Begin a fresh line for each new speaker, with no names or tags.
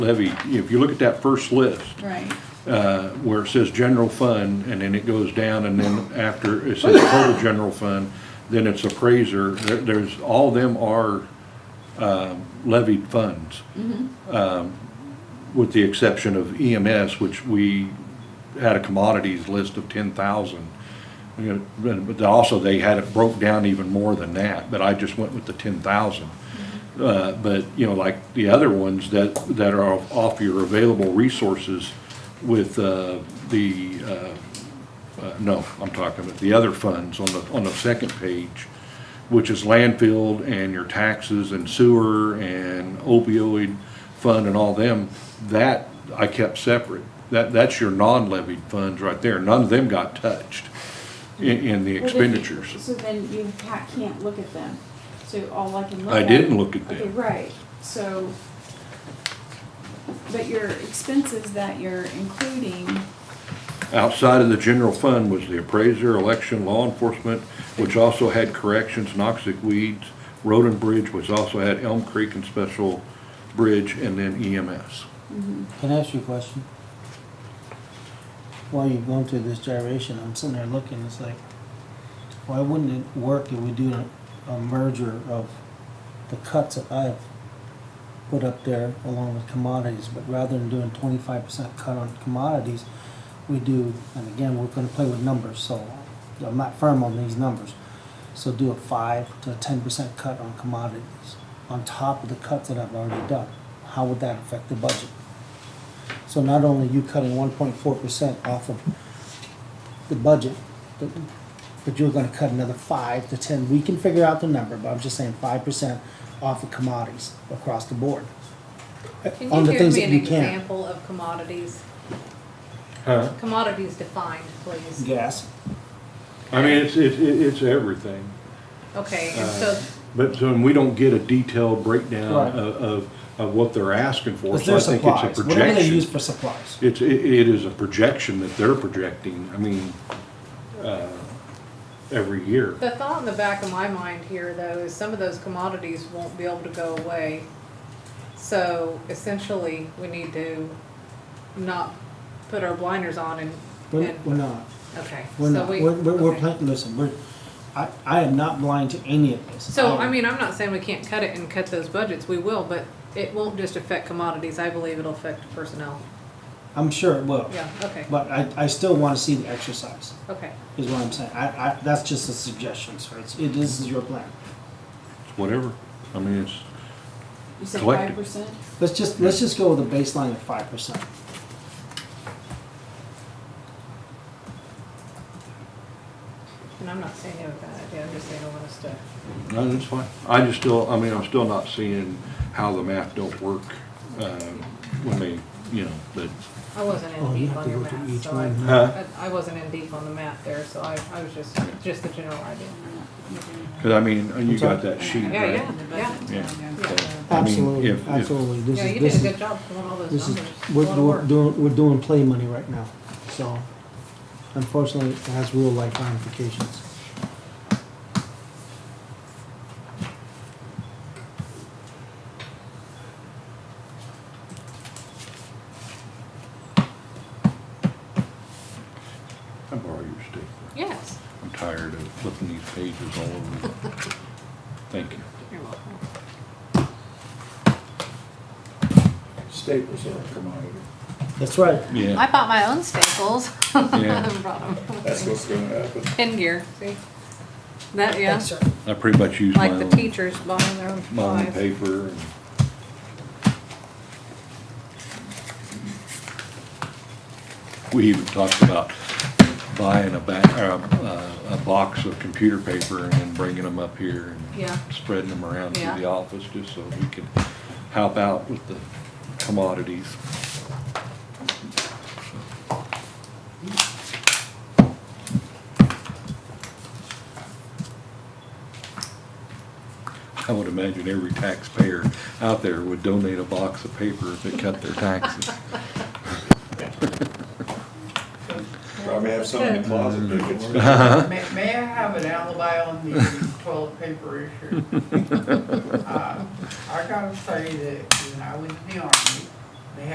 levy, if you look at that first list,
Right.
uh, where it says general fund, and then it goes down, and then after it says total general fund, then it's appraiser, there, there's, all them are, um, levied funds. Um, with the exception of EMS, which we had a commodities list of ten thousand. But but also, they had it broke down even more than that, but I just went with the ten thousand. Uh, but, you know, like the other ones that, that are off your available resources with, uh, the, uh, uh, no, I'm talking about the other funds on the, on the second page, which is landfill and your taxes and sewer and opioid fund and all them, that I kept separate. That, that's your non-levied funds right there. None of them got touched in, in the
Well, then you-
expenditures.
So then you ca- can't look at them, so all I can look
I
at.
didn't look at
Okay,
them.
right, so, but your expenses that you're including,
Outside of the general fund was the appraiser, election, law enforcement, which also had corrections, noxic weeds, road and bridge, which also had Elm Creek and Special Bridge, and then E EMS.
Can I ask you a question? While you're going through this gyration, I'm sitting there looking, it's like, why wouldn't it work if we do a- a merger of the cuts that I've put up there along with commodities, but rather than doing twenty-five percent cut on commodities, we do, and again, we're gonna play with numbers, so I'm not firm on these numbers. So do a five to ten percent cut on commodities, on top of the cuts that I've already done. How would that affect the budget? So not only you cutting one point four percent off of the budget, but, but you're gonna cut another five to ten, we can figure out the number, but I'm just saying five percent off of commodities across the board. On
Can
the
you give
things
me
that
an
you can.
example of commodities?
Huh?
Commodities defined, please.
Gas,
I mean, it's, it's, it's everything.
Okay, and so,
But so we don't get a detailed breakdown
Right.
of, of, of what they're asking for.
it's
So I
their
think it's a
supplies, whatever they
projection.
use for supplies.
It's, it, it is a projection that they're projecting, I mean, uh, every year.
the thought in the back of my mind here, though, is some of those commodities won't be able to go away. So essentially, we need to not put our blinders on and,
We're,
and,
we're not,
okay.
we're
so
not,
we-
we're, we're, we're
okay.
planting, listen, we're, I, I am not blind to any of this.
So, I mean, I'm not saying we can't cut it and cut those budgets, we will, but it won't just affect commodities, I believe it'll affect personnel.
I'm sure it will,
Yeah, okay,
but I, I still wanna see the exercise.
okay.
is what I'm saying. I, I, that's just a suggestion, sir. It's, it is your plan.
It's whatever. I mean, it's,
you said five
Collective.
percent?
Let's just, let's just go with a baseline of five percent.
And I'm not saying you have a bad idea, I'm just saying I want us to.
no, that's fine. I just still, I mean, I'm still not seeing how the math don't work, uh, when they, you know, but.
I wasn't
Oh,
in
you
deep
have
on
to
your
go through
math,
each
so I,
one.
Huh?
I- I wasn't in deep on the math there, so I, I was just, just the general idea.
Cause I mean, you got that sheet,
Yeah,
right?
yeah, yeah.
I mean, if- if-
absolutely.
Yeah, you did a good job pulling all those
This is,
numbers, a
we're,
lot of
we're
work.
doing, we're doing play money right now, so unfortunately, it has real life ramifications.
I borrow your stick.
Yes,
I'm tired of flipping these pages all over. Thank you.
you're welcome.
Staples are a commodity.
That's right.
Yeah,
I bought my own staples.
Yeah.
I brought them.
That's what's gonna happen.
Pin gear, see? That, yeah,
I pretty much use my
like the
own,
teachers buying their own
my own
supplies.
paper and. We even talked about buying a ba, or a, a box of computer paper and then bringing them up here
Yeah.
and spreading them around through
Yeah.
the office just so we could help out with the commodities. I would imagine every taxpayer out there would donate a box of paper if it cut their taxes.
Probably have some in the closet that gets.
Mm-hmm.
May, may I have an alibi on the toilet paper issue? Uh, I gotta say that when I was in the army,